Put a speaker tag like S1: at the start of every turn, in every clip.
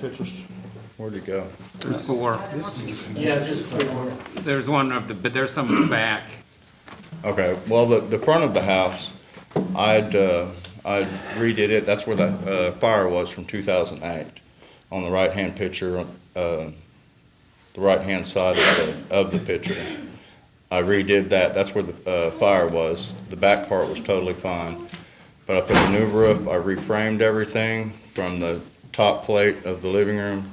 S1: Pictures. Where'd he go?
S2: There's four.
S3: Yeah, just four.
S2: There's one of the, but there's some in the back.
S1: Okay, well, the, the front of the house, I'd, uh, I redid it, that's where the, uh, fire was from two thousand eight. On the right-hand picture, uh, the right-hand side of the, of the picture. I redid that, that's where the, uh, fire was, the back part was totally fine. But I put a new roof, I reframed everything from the top plate of the living room.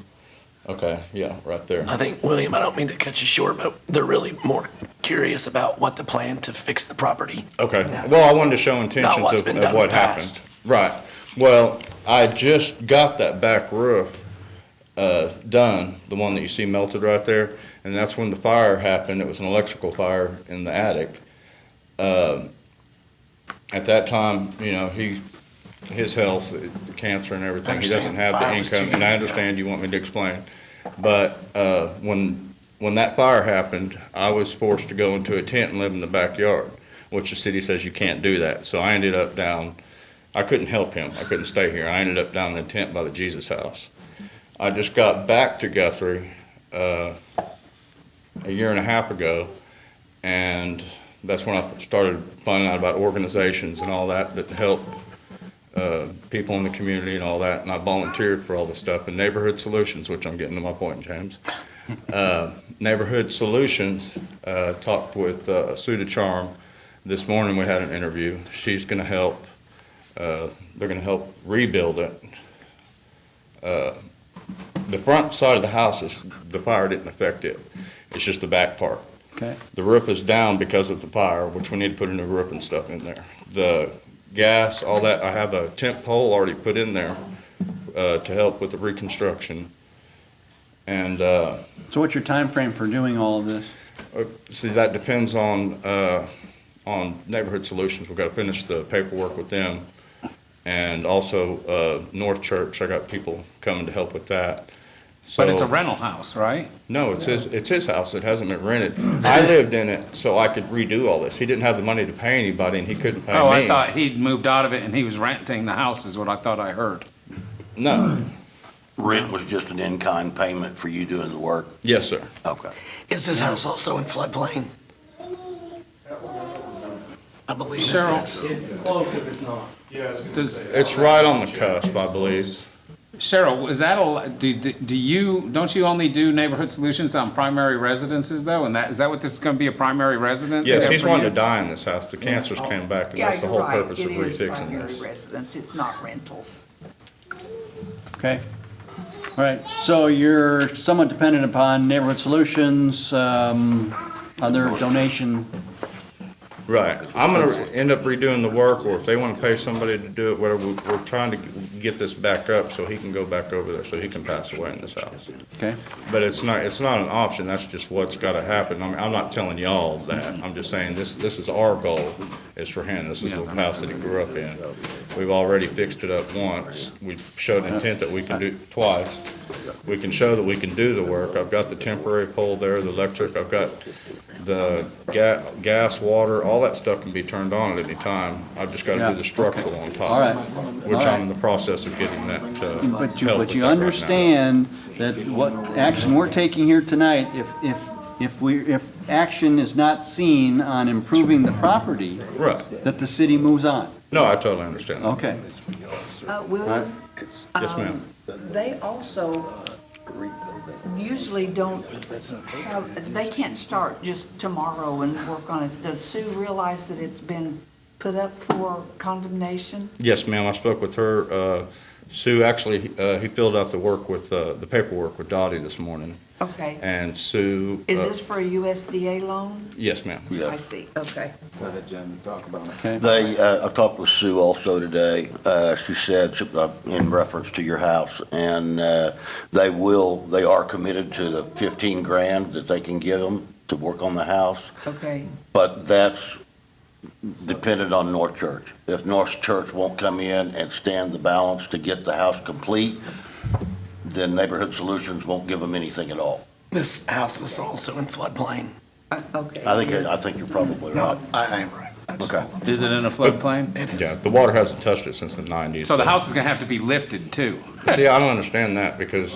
S1: Okay, yeah, right there.
S4: I think, William, I don't mean to cut you short, but they're really more curious about what the plan to fix the property.
S1: Okay, well, I wanted to show intentions
S4: what's
S1: of
S4: been
S1: of
S4: done in
S1: what
S4: the past.
S1: happened. Right, well, I just got that back roof, uh, done, the one that you see melted right there, and that's when the fire happened, it was an electrical fire in the attic. Um, At that time, you know, he, his health, uh, cancer and everything, he doesn't
S4: understand.
S1: have the
S4: Fire was two
S1: income, and I
S4: years ago.
S1: understand you want me to explain. But, uh, when, when that fire happened, I was forced to go into a tent and live in the backyard which the city says you can't do that. So I ended up down, I couldn't help him. I couldn't stay here. I ended up down in a tent by the Jesus House. I just got back to Guthrie uh, a year and a half ago, and that's when I started finding out about organizations and all that that help uh, people in the community and all that. And I volunteered for all this stuff and Neighborhood Solutions, which I'm getting to my point, James. Uh, Neighborhood Solutions uh, talked with uh, Sue DeCharm, this morning we had an interview. She's going to help, uh, they're going to help rebuild it. Uh, The front side of the house is, the fire didn't affect it. It's just the back part.
S5: Okay.
S1: The roof is down because of the fire, which we need to put a new roof and stuff in there. The gas, all that, I have a tent pole already put in there uh, to help with the reconstruction. And uh,
S5: So what's your time frame for doing all of this?
S1: uh, See, that depends on, uh, on Neighborhood Solutions. We've got to finish the paperwork with them. And also, uh, North Church, I got people coming to help with that.
S2: But it's
S1: So-
S2: a rental house, right?
S1: No, it's his, it's his house. It hasn't been rented. I lived in it so I could redo all this. He didn't have the money to pay anybody and he couldn't pay me.
S2: Oh, I thought he'd moved out of it and he was renting the house is what I thought I heard.
S1: No.
S6: Rent was just an in-kind payment for you doing the work?
S1: Yes, sir.
S6: Okay.
S4: Is this house also in floodplain? I believe it
S2: Cheryl.
S4: is.
S3: It's close if it's not.
S2: Does,
S1: It's right on the cusp, I believe.
S2: Cheryl, is that a, do, do you, don't you only do neighborhood solutions on primary residences though? And that, is that what this is gonna be, a primary residence?
S1: Yes,
S2: Yeah,
S1: he's
S2: for
S1: wanting to
S2: you?
S1: die in this house. The cancers came back and
S7: Yeah,
S1: that's the
S7: you're
S1: whole
S7: right.
S1: purpose of
S7: It is
S1: refixing
S7: primary
S1: this.
S7: residence, it's not rentals.
S5: Okay. All right, so you're somewhat dependent upon Neighborhood Solutions, um, other donation.
S1: Right. I'm gonna end up redoing the work, or if they wanna pay somebody to do it, whatever, we- we're trying to get this back up so he can go back over there, so he can pass away in this house.
S5: Okay,
S1: But it's not, it's not an option, that's just what's gotta happen. I mean, I'm not telling y'all that, I'm just saying, this, this is our goal, is for him, this is the house that he grew up in. We've already fixed it up once, we've showed intent that we can do twice. We can show that we can do the work, I've got the temporary pole there, the electric, I've got the ga- gas, water, all that stuff can be turned on at any time. I've just gotta
S5: Yeah.
S1: do the structural on top.
S5: All right.
S1: Which
S5: All right.
S1: I'm in the process of getting that, uh, help
S5: but you,
S1: with
S5: but you
S1: that right now.
S5: understand that what action we're taking here tonight, if, if, if we, if action is not seen on improving the property,
S1: Right,
S5: that the city moves on.
S1: no, I totally understand that.
S5: Okay,
S7: Uh,
S5: all right,
S7: Will,
S1: Yes, ma'am.
S7: they also usually don't have, they can't start just tomorrow and work on it. Does Sue realize that it's been put up for condemnation?
S1: Yes, ma'am, I spoke with her. Uh, Sue, actually, uh, he filled out the work with, uh, the paperwork with Dottie this morning,
S7: Okay.
S1: and Sue.
S7: Is
S1: uh,
S7: this for a USDA loan?
S1: Yes, ma'am.
S7: I see, okay.
S5: okay.
S6: They, uh, I talked with Sue also today. Uh, She said, she- uh, in reference to your house, and uh, they will, they are committed to the 15 grand that they can give them to work on the house,
S7: Okay,
S6: but that's dependent on North Church. If North Church won't come in and stand the balance to get the house complete, then Neighborhood Solutions won't give them anything at all.
S4: This house is also in floodplain.
S7: Uh, okay.
S6: I think, I think you're probably right.
S4: I, I am right.
S6: Okay.
S2: Is it in a floodplain? It
S1: Yeah, the water hasn't touched it since the nineties.
S2: So the house is gonna have to be lifted too?
S1: See, I don't understand that because